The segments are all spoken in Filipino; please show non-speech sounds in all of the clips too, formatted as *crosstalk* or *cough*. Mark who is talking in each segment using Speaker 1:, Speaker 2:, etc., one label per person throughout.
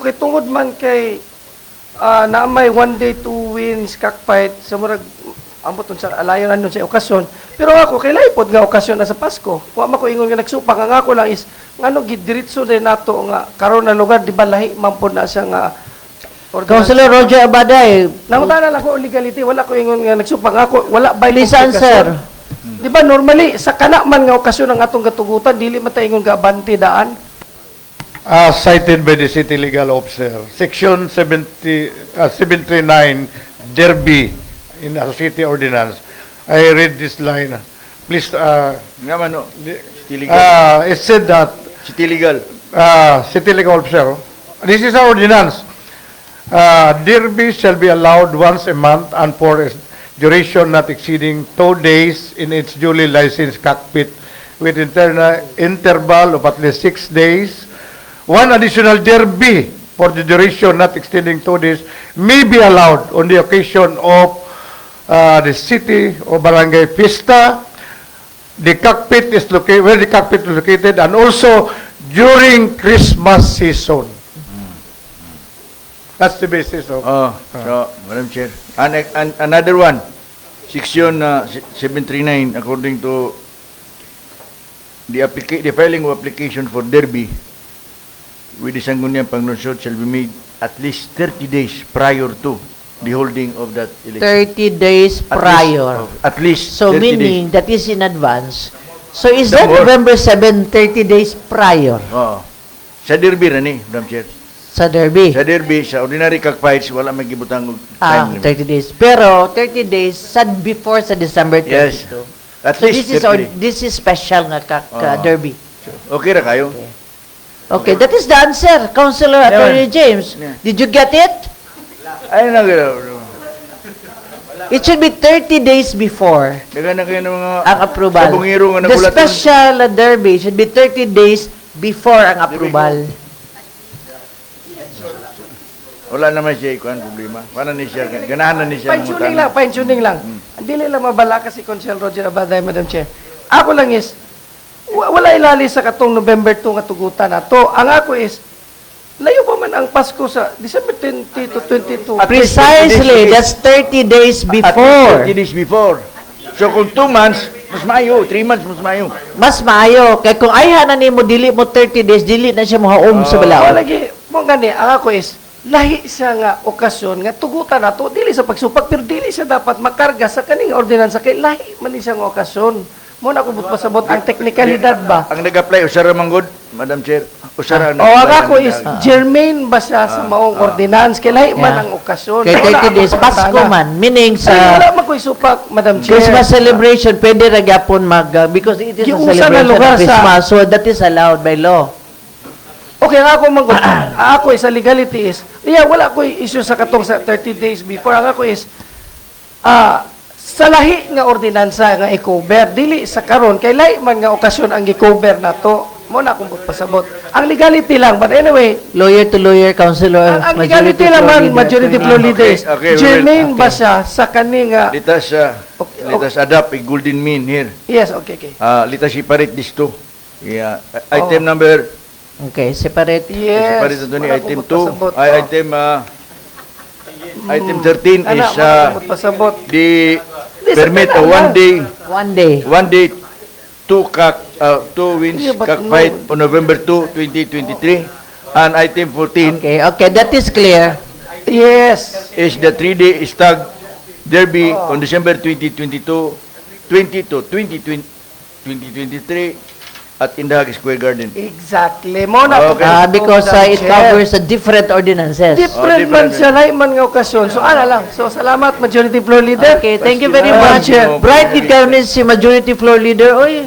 Speaker 1: Okay, tungod man kay ah, na may one day two wins cockfight sa murag ambot nun sa alayon nun sa okasyon. Pero ako kay laipod nga okasyon na sa Pasko. Wa man ko ingon nga nagsupak ang ako lang is ngano gidiretso din nato nga karon na lugar di ba lahi man pod na siya nga
Speaker 2: Councilor Roger eh, Abaday,
Speaker 1: Nangutana lang ko ang legality, wala ko ingon nga nagsumpang ako, wala by
Speaker 2: Please answer.
Speaker 1: Di ba normally sa kana man nga okasyon ang atong katugutan dili man ta ingon nga abante daan.
Speaker 3: As Ah, cited by the city legal officer, section 70, uh, 739 Derby in our city ordinance. I read this line. Please, uh,
Speaker 4: Nga man, no. Ah. City legal.
Speaker 3: uh, it said that
Speaker 4: City legal.
Speaker 3: uh, city legal officer, this is our ordinance. Uh, Derby shall be allowed once a month and for a duration not exceeding two days in its duly licensed cockpit with interna- interval of at least six days. One additional derby for the duration not exceeding two days may be allowed on the occasion of uh, the city or barangay fiesta, the cockpit is located, where the cockpit is located, and also during Christmas season. That's the basis of.
Speaker 4: Oh, so, Madam Chair. An, an- another one. Section uh, se- 739 according to the applica- the filing of application for derby with the Sangguniang Panglunsod shall be made at least 30 days prior to the holding of that election.
Speaker 2: 30 days
Speaker 4: At least-
Speaker 2: prior.
Speaker 4: oh, At least
Speaker 2: So
Speaker 4: 30 days.
Speaker 2: meaning, that is in advance. So is that
Speaker 4: Some more.
Speaker 2: November 7, 30 days prior
Speaker 4: Oo. Ah. Sa derby na ni, Madam Chair.
Speaker 2: sa Derby?
Speaker 4: Sa derby, sa ordinary cockfights, wala may gibutang og
Speaker 2: Ah,
Speaker 4: time limit.
Speaker 2: 30 days. Pero 30 days sa before sa December 32.
Speaker 4: Yes. At
Speaker 2: So this
Speaker 4: least
Speaker 2: is,
Speaker 4: 30
Speaker 2: or-
Speaker 4: days.
Speaker 2: this is special nga ka, ka
Speaker 4: Ah.
Speaker 2: Derby.
Speaker 4: Okay ra kayo?
Speaker 2: Okay, that is the answer, Councilor
Speaker 4: Yeah.
Speaker 2: Attorney James.
Speaker 4: Yeah.
Speaker 2: Did you get it?
Speaker 4: Ay na
Speaker 2: It should be 30 days before.
Speaker 4: Daga na kayo ng mga
Speaker 1: Ah,
Speaker 2: ang approval.
Speaker 4: Sa bungiro
Speaker 2: The
Speaker 4: nga nagulat.
Speaker 2: special derby should be 30 days before ang approval.
Speaker 4: Wala naman siya ikuan problema. Paano ni siya? Ganahan na ni siya. ng
Speaker 1: Fine-tuning lang,
Speaker 4: utang.
Speaker 1: fine-tuning lang. Dili lang mabala kasi Consel Roger Abaday, Madam Chair. Ako lang is, wa- wala ilali sa katong November 2 nga tugutan na to. Ang ako is, layo pa man ang Pasko sa December 20 to 22.
Speaker 2: Precisely, that's 30 days
Speaker 4: At least
Speaker 2: before.
Speaker 4: 30 days before. So kung 2 months, mas maayo. 3 months, mas maayo.
Speaker 2: Mas maayo. Kaya kung ayahanan ni mo, dili mo 30 days, dili na siya mahaom sa
Speaker 1: Ah. Wala
Speaker 2: balaod.
Speaker 1: lagi, mo gani, ang ako is, lahi siya nga okasyon nga tugutan na to, dili sa pagsupag, pero dili siya dapat makarga sa kaning ordinansa kay lahi man ni siya nga okasyon. Mo na kubot pasabot ang teknikalidad ba?
Speaker 4: Ang nag-apply, usara manggod, Madam Chair. Usara
Speaker 1: O ang ako is, germane ba siya sa
Speaker 4: Ah.
Speaker 1: maong ordinance? Kaya lahi man
Speaker 2: Yeah.
Speaker 1: ang okasyon.
Speaker 2: Kaya
Speaker 1: Wala
Speaker 2: 30 days,
Speaker 1: akong
Speaker 2: Pasko
Speaker 1: pantana.
Speaker 2: man. Meaning
Speaker 1: Ay, wala
Speaker 2: sa
Speaker 1: man ko isupak, Madam Chair.
Speaker 2: Christmas celebration, pwede ra gyapon mag, uh, because it is a
Speaker 1: Giusa na
Speaker 2: celebration
Speaker 1: lugar
Speaker 2: of
Speaker 1: sa-
Speaker 2: Christmas, so that is allowed by law.
Speaker 1: Okay, ang ako man
Speaker 2: Ah,
Speaker 1: gud- ang ako is, sa legality is, yeah, wala ko issue sa katong sa 30 days before. Ang ako is, ah, sa lahi nga ordinansa nga i-cover, dili sa karon kay lahi man nga okasyon ang i-cover na to. Mo na akong pasabot. Ang legality lang, but anyway,
Speaker 2: Lawyer to lawyer,
Speaker 1: ang,
Speaker 2: counselor,
Speaker 1: ang
Speaker 2: Ah, majority
Speaker 1: legality
Speaker 2: to
Speaker 1: naman,
Speaker 2: leader,
Speaker 1: majority
Speaker 2: attorney.
Speaker 1: flow leaders,
Speaker 4: Ah, Okay, okay, we will-
Speaker 1: germane ba siya sa kaning, ah,
Speaker 4: Let us, uh,
Speaker 1: Okay,
Speaker 4: let
Speaker 1: okay.
Speaker 4: us adopt a golden mean here.
Speaker 1: yes, okay, okay.
Speaker 4: Uh, let us separate these two. Yeah.
Speaker 1: Oh.
Speaker 4: Item number
Speaker 2: Okay, separate.
Speaker 1: Yes.
Speaker 4: Pare sa doon
Speaker 1: wala
Speaker 4: item
Speaker 1: akong
Speaker 4: 2,
Speaker 1: magpasabot.
Speaker 4: ay
Speaker 1: Oh.
Speaker 4: item ah, item 13
Speaker 1: Ana, wala
Speaker 4: is ah,
Speaker 1: akong magpasabot.
Speaker 4: the
Speaker 1: This
Speaker 4: permit
Speaker 1: is
Speaker 4: a
Speaker 1: ano
Speaker 4: one
Speaker 1: lang.
Speaker 4: day
Speaker 2: One day.
Speaker 4: one day two cock ah, two
Speaker 1: Yeah,
Speaker 4: wins
Speaker 1: but
Speaker 4: cockfight
Speaker 1: no.
Speaker 4: on November 2, 2023 and item 14
Speaker 2: Okay, okay, that is clear.
Speaker 1: Yes.
Speaker 4: is the three day stag derby
Speaker 1: Oh.
Speaker 4: on December 2022 20 to 2020 2023 at Indahag Square
Speaker 1: *laughs*
Speaker 4: Garden. *laughs*
Speaker 1: Exactly. Mo na
Speaker 4: Okay.
Speaker 2: Uh, because uh, it
Speaker 1: covers
Speaker 2: covers the different ordinances.
Speaker 1: Different
Speaker 4: Oh,
Speaker 1: man
Speaker 4: different.
Speaker 1: siya, lahi man nga okasyon. So, ala lang. So, salamat, majority floor leader.
Speaker 2: Okay, thank you very
Speaker 1: Madam
Speaker 2: much.
Speaker 1: Chair.
Speaker 2: Bright determines si majority floor leader. Oy.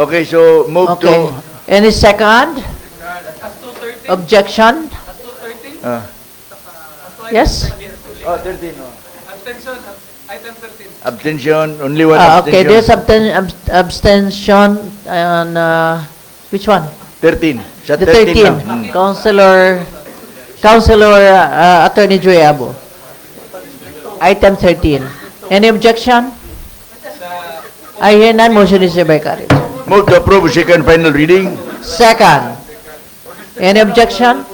Speaker 4: okay, so move
Speaker 2: Okay.
Speaker 4: to
Speaker 2: Any second? Objection?
Speaker 4: ah,
Speaker 2: Yes?
Speaker 4: Oh, 13. Abstention, item 13. Abstention, only one
Speaker 2: Ah, okay,
Speaker 4: abstention.
Speaker 2: there's absten- abs- abstention on, uh, which one?
Speaker 4: 13. Sa
Speaker 2: The
Speaker 4: 13,
Speaker 2: 13.
Speaker 4: lang.
Speaker 2: Counselor, Counselor uh, Attorney Joy Abo. Item 13. Any objection? I hear none, motion is hereby carried.
Speaker 4: Move to approve second final reading.
Speaker 2: Second, any objection?